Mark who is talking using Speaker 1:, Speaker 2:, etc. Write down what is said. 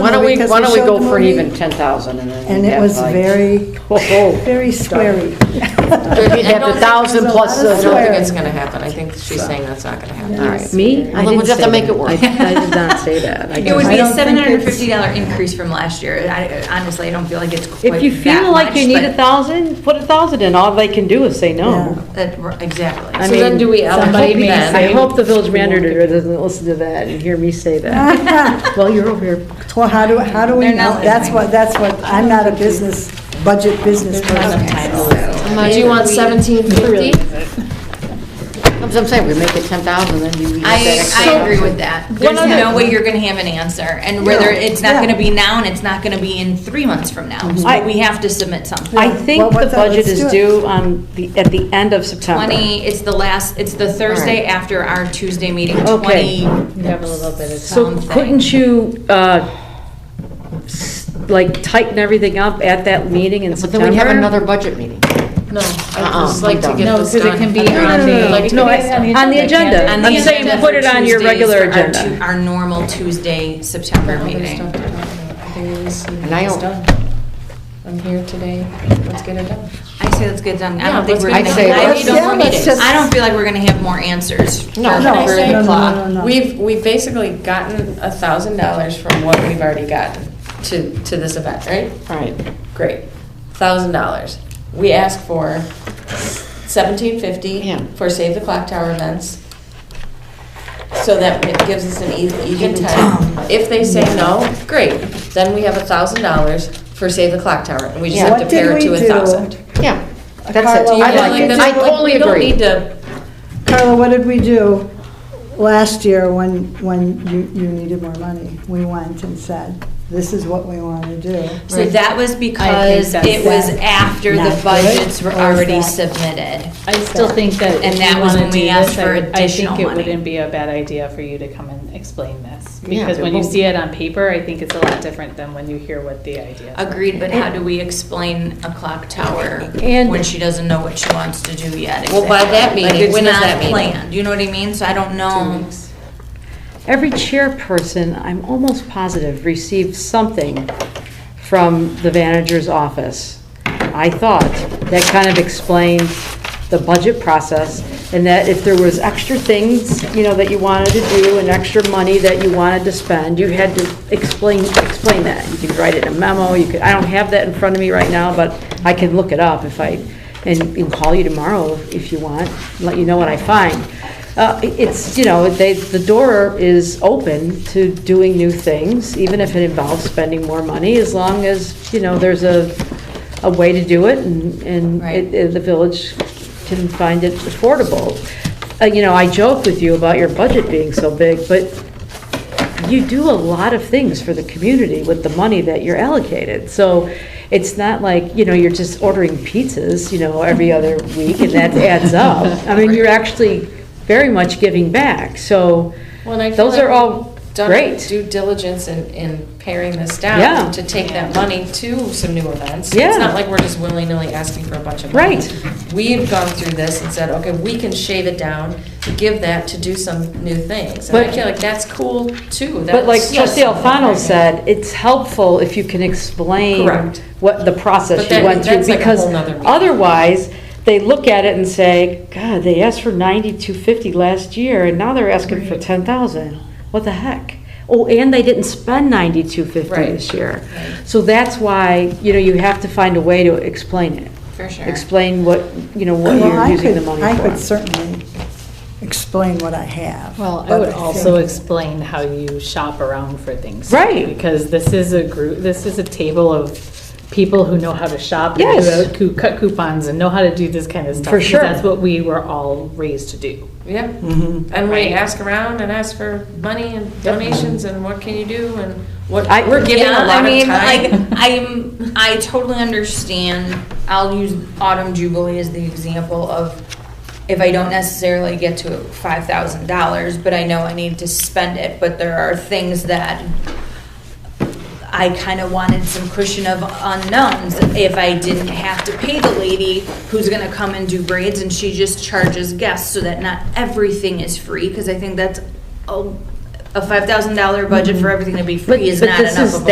Speaker 1: we,
Speaker 2: because
Speaker 1: why
Speaker 2: we
Speaker 1: don't we
Speaker 2: showed
Speaker 1: go
Speaker 2: them
Speaker 1: for
Speaker 2: all
Speaker 1: even
Speaker 2: the-
Speaker 1: ten thousand and then.
Speaker 2: And it
Speaker 1: have
Speaker 2: was
Speaker 1: like-
Speaker 2: very,
Speaker 1: Oh, oh.
Speaker 2: very sweary.
Speaker 1: You'd have the thousand plus
Speaker 2: There's a lot
Speaker 1: the.
Speaker 3: uh,
Speaker 2: of
Speaker 4: I don't think it's
Speaker 2: swearing.
Speaker 4: gonna happen. I think she's saying that's not gonna happen.
Speaker 1: All right.
Speaker 5: Me? I
Speaker 1: Well, then
Speaker 5: didn't
Speaker 1: we'll just
Speaker 5: say
Speaker 1: have to make
Speaker 5: that.
Speaker 1: it work.
Speaker 5: I I did not say that. I
Speaker 4: It would
Speaker 5: just-
Speaker 4: be a
Speaker 2: don't
Speaker 4: seven
Speaker 2: think
Speaker 4: hundred and
Speaker 2: it's-
Speaker 4: fifty dollar increase from last year. I- Honestly, I don't feel like it's quite
Speaker 5: If you
Speaker 4: that
Speaker 5: feel like
Speaker 4: much,
Speaker 5: you need
Speaker 4: but
Speaker 5: a thousand, put a thousand in. All they can do is say no.
Speaker 2: Yeah.
Speaker 4: that- Exactly.
Speaker 5: I
Speaker 1: So then
Speaker 5: mean,
Speaker 1: do we
Speaker 5: somebody
Speaker 1: allocate
Speaker 5: may
Speaker 1: then?
Speaker 5: say- I hope the village manager doesn't listen to that and hear me say that. Well, you're over here.
Speaker 2: Well, how do, how do we
Speaker 4: They're not
Speaker 2: know? That's
Speaker 4: listening.
Speaker 2: what, that's what, I'm not a business, budget business person.
Speaker 1: Uh, Do you want seventeen fifty? That's what I'm saying, we make it ten thousand, then you. get that
Speaker 4: I,
Speaker 1: extra
Speaker 4: I agree
Speaker 1: thousand.
Speaker 4: with that. There's
Speaker 1: other-
Speaker 4: no way you're gonna have an answer, and whether
Speaker 2: No,
Speaker 4: it's not
Speaker 2: yeah.
Speaker 4: gonna be now, and it's not gonna be in three months from now,
Speaker 5: I-
Speaker 4: so we have to submit something.
Speaker 5: Mm-hmm. I
Speaker 2: Yeah.
Speaker 5: think
Speaker 2: Well,
Speaker 5: the
Speaker 2: what's that? Let's
Speaker 5: budget
Speaker 2: do
Speaker 5: is
Speaker 2: it.
Speaker 5: due on the, at the end of September.
Speaker 4: Twenty, it's the last, it's the Thursday after our Tuesday meeting,
Speaker 5: Okay.
Speaker 4: twenty
Speaker 5: So
Speaker 4: something.
Speaker 5: couldn't you, uh, s- like tighten everything up at that meeting in
Speaker 1: But
Speaker 5: September?
Speaker 1: then we have another budget meeting.
Speaker 3: No,
Speaker 1: Uh-uh,
Speaker 3: I just
Speaker 1: we
Speaker 3: like to
Speaker 1: don't.
Speaker 3: get
Speaker 1: No,
Speaker 3: this done.
Speaker 5: because it can be
Speaker 3: I don't know,
Speaker 5: on the-
Speaker 3: like, it
Speaker 5: no,
Speaker 3: could be
Speaker 5: I- on the
Speaker 3: can't-
Speaker 5: agenda.
Speaker 4: On
Speaker 5: I'm
Speaker 4: the
Speaker 5: saying
Speaker 4: agenda
Speaker 5: put
Speaker 4: for
Speaker 5: it on your
Speaker 4: Tuesdays
Speaker 5: regular
Speaker 4: for our
Speaker 5: agenda.
Speaker 4: tu- Our normal Tuesday, September
Speaker 3: There's
Speaker 4: meeting.
Speaker 3: stuff to talk about. There is-
Speaker 1: And I
Speaker 3: it's
Speaker 1: don't-
Speaker 3: done. I'm here today, let's get it done.
Speaker 4: I say let's get done. I
Speaker 3: Yeah,
Speaker 4: don't think
Speaker 3: let's
Speaker 4: we're
Speaker 1: get
Speaker 4: gonna,
Speaker 1: it done.
Speaker 4: I
Speaker 1: Let's-
Speaker 4: don't,
Speaker 2: yeah,
Speaker 4: more
Speaker 2: let's
Speaker 4: meetings.
Speaker 2: just-
Speaker 4: I don't feel like we're gonna have more answers. for-
Speaker 1: No,
Speaker 4: for
Speaker 2: no,
Speaker 4: the
Speaker 2: no, no,
Speaker 4: clock.
Speaker 2: no, no.
Speaker 3: We've, we've basically gotten a thousand dollars from what we've already gotten to, to this event, right?
Speaker 1: All right,
Speaker 3: Great, thousand dollars. We ask for seventeen fifty
Speaker 1: Yeah.
Speaker 3: for Save the Clock Tower events. So that it gives us an even, even time. If they say no, great, then we have a thousand dollars for Save the Clock Tower, and we just
Speaker 1: Yeah.
Speaker 3: have
Speaker 2: What
Speaker 3: to
Speaker 2: did
Speaker 3: pair it
Speaker 2: we
Speaker 3: to a
Speaker 2: do?
Speaker 3: thousand.
Speaker 1: yeah, that's it.
Speaker 2: Carla,
Speaker 3: Do you
Speaker 1: I
Speaker 3: feel
Speaker 1: like
Speaker 3: like
Speaker 1: it.
Speaker 3: that's
Speaker 1: I
Speaker 3: like-
Speaker 1: totally agree.
Speaker 3: We don't need to,
Speaker 2: Carla, what did we do last year when, when you, you needed more money? We went and said, this is what we want to do.
Speaker 4: So that was because
Speaker 6: that's-
Speaker 4: it was after
Speaker 2: Not
Speaker 4: the
Speaker 2: good,
Speaker 4: budgets were
Speaker 2: or is
Speaker 4: already
Speaker 2: that-
Speaker 4: submitted.
Speaker 6: I still think that
Speaker 4: And
Speaker 6: if
Speaker 4: that
Speaker 6: you
Speaker 4: was when
Speaker 6: want to
Speaker 4: we
Speaker 6: do
Speaker 4: asked
Speaker 6: this,
Speaker 4: for
Speaker 6: I would- I
Speaker 4: additional
Speaker 6: think it
Speaker 4: money.
Speaker 6: wouldn't be a bad idea for you to come and explain this.
Speaker 1: Yeah,
Speaker 6: Because
Speaker 1: it
Speaker 6: when you
Speaker 1: won't.
Speaker 6: see it on paper, I think it's a lot different than when you hear what the idea is.
Speaker 4: Agreed, but how do we explain a clock tower
Speaker 5: And-
Speaker 4: when she doesn't know what she wants to do yet?
Speaker 3: Well, by
Speaker 4: exactly?
Speaker 3: that meeting,
Speaker 4: Like, it's
Speaker 3: when is
Speaker 4: not
Speaker 3: that meeting?
Speaker 4: planned, You know what I mean? So I don't know.
Speaker 5: Every chairperson, I'm almost positive, received something from the manager's office. I thought that kind of explained the budget process and that if there was extra things, you know, that you wanted to do and extra money that you wanted to spend, you had to explain, explain that. You could write it in a memo, you could, I don't have that in front of me right now, but I can look it up if I, and and call you tomorrow if you want, let you know what I find. Uh, It's, you know, they, the door is open to doing new things, even if it involves spending more money, as long as, you know, there's a, a way to do it and, and it-
Speaker 4: Right.
Speaker 5: it- the village can find it affordable. Uh, You know, I joked with you about your budget being so big, but you do a lot of things for the community with the money that you're allocated. So it's not like, you know, you're just ordering pizzas, you know, every other week and that adds up. I mean, you're actually very much giving back, so
Speaker 3: Well, and I feel
Speaker 5: those
Speaker 3: like
Speaker 5: are all
Speaker 3: we've done
Speaker 5: great.
Speaker 3: Due diligence in, in paring this
Speaker 5: Yeah.
Speaker 3: down to take that money to some new events.
Speaker 5: Yeah.
Speaker 3: It's not like we're just willy-nilly asking for a bunch of money.
Speaker 5: Right.
Speaker 3: We've gone through this and said, okay, we can shave it down, give that to do some new things. And I
Speaker 5: But-
Speaker 3: feel like that's cool too.
Speaker 5: But like
Speaker 3: That's-
Speaker 5: trustee Alfano said, it's helpful if you can explain
Speaker 3: Correct.
Speaker 5: what the process
Speaker 3: But
Speaker 5: you
Speaker 3: that-
Speaker 5: went through.
Speaker 3: that's like a
Speaker 5: Because
Speaker 3: whole nother meeting.
Speaker 5: otherwise, they look at it and say, God, they asked for ninety-two fifty last year and now they're asking for ten thousand. What the heck? Oh, and they didn't spend ninety-two fifty
Speaker 3: Right.
Speaker 5: this year. So that's why, you know, you have to find a way to explain it.
Speaker 4: For sure.
Speaker 5: Explain what, you know, what
Speaker 2: Well,
Speaker 5: you're
Speaker 2: I
Speaker 5: using
Speaker 2: could-
Speaker 5: the money for.
Speaker 2: I could certainly explain what I have.
Speaker 6: Well, I
Speaker 2: but
Speaker 6: would also
Speaker 2: think-
Speaker 6: explain how you shop around for things. too,
Speaker 5: Right.
Speaker 6: Because this is a group, this is a table of people who know how to shop. and
Speaker 5: Yes.
Speaker 6: Who who cut coupons and know how to do this kind of stuff.
Speaker 5: For
Speaker 6: because
Speaker 5: sure.
Speaker 6: That's what we were all raised to do.
Speaker 3: Yeah,
Speaker 5: mm-hmm.
Speaker 3: and we ask around and ask for money and donations and what can you do and what,
Speaker 5: I-
Speaker 3: we're giving a
Speaker 4: Yeah,
Speaker 3: lot of
Speaker 4: I mean,
Speaker 3: time.
Speaker 4: like, I'm, I totally understand, I'll use Autumn Jubilee as the example of if I don't necessarily get to five thousand dollars, but I know I need to spend it, but there are things that I kind of wanted some cushion of unknowns if I didn't have to pay the lady who's gonna come and do braids and she just charges guests so that not everything is free, because I think that's, a a five thousand dollar budget for everything to be
Speaker 5: But-
Speaker 4: free is
Speaker 5: Mm-hmm. but
Speaker 4: not
Speaker 5: this
Speaker 4: enough
Speaker 5: is-
Speaker 4: of a